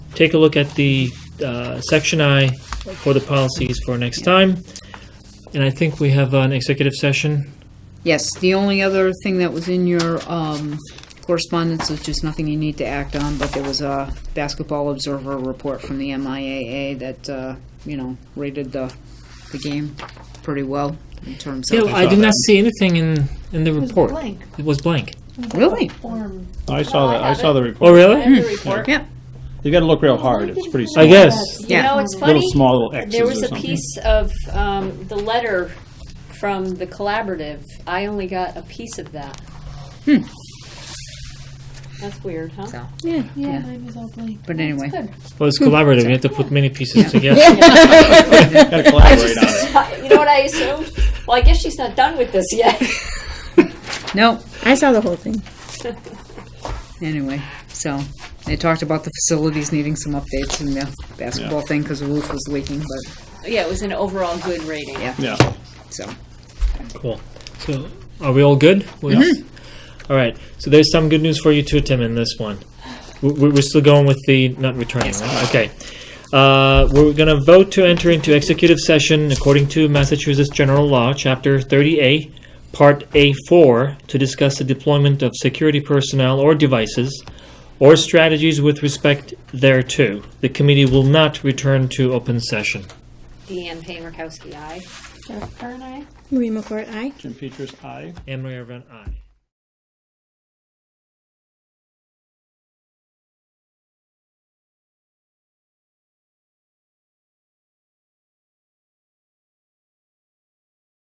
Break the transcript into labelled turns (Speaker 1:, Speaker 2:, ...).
Speaker 1: take a look at the uh, section I for the policies for next time. And I think we have an executive session.
Speaker 2: Yes, the only other thing that was in your um, correspondence is just nothing you need to act on, but there was a basketball observer report from the MIAA that, uh, you know, rated the, the game pretty well in terms
Speaker 1: Yeah,
Speaker 2: of.
Speaker 1: I did not see anything in, in the report.
Speaker 3: blank.
Speaker 1: It was blank.
Speaker 2: Really?
Speaker 3: Form.
Speaker 4: Oh, I saw that. I saw the report.
Speaker 1: Oh, really?
Speaker 5: The report.
Speaker 2: Yeah.
Speaker 4: You got to look real hard. It's pretty small.
Speaker 1: I guess.
Speaker 5: You know, it's
Speaker 4: Little
Speaker 5: funny.
Speaker 4: small little X's
Speaker 5: There was
Speaker 4: or
Speaker 5: a
Speaker 4: something.
Speaker 5: piece of um, the letter from the collaborative. I only got a piece of that. Hmm. That's weird, huh?
Speaker 2: So,
Speaker 3: Yeah, mine was all blank.
Speaker 2: But anyway.
Speaker 1: Well, it's collaborative. You have to put many pieces together.
Speaker 4: Got to collaborate on it.
Speaker 5: You know what I assumed? Well, I guess she's not done with this yet.
Speaker 2: No,
Speaker 6: I saw the whole thing.
Speaker 2: anyway, so they talked about the facilities needing some updates and the basketball thing because the roof was leaking, but,
Speaker 5: Yeah, it was an overall good rating.
Speaker 2: Yeah.
Speaker 4: Yeah.
Speaker 2: so.
Speaker 1: Cool. So, are we all good? We- All right. So, there's some good news for you too, Tim, in this one. We- we- We're still going with the not returning, right? Okay. Uh, we're going to vote to enter into executive session according to Massachusetts General Law, Chapter 30A, Part A4, to discuss the deployment of security personnel or devices or strategies with respect thereto. The committee will not return to open session.
Speaker 5: Deanne Payne-Rakowski, aye.
Speaker 3: Jennifer and I.
Speaker 6: Marie McCourt, aye.
Speaker 4: Jim Petrus, aye.
Speaker 1: Anne Marie Van, aye.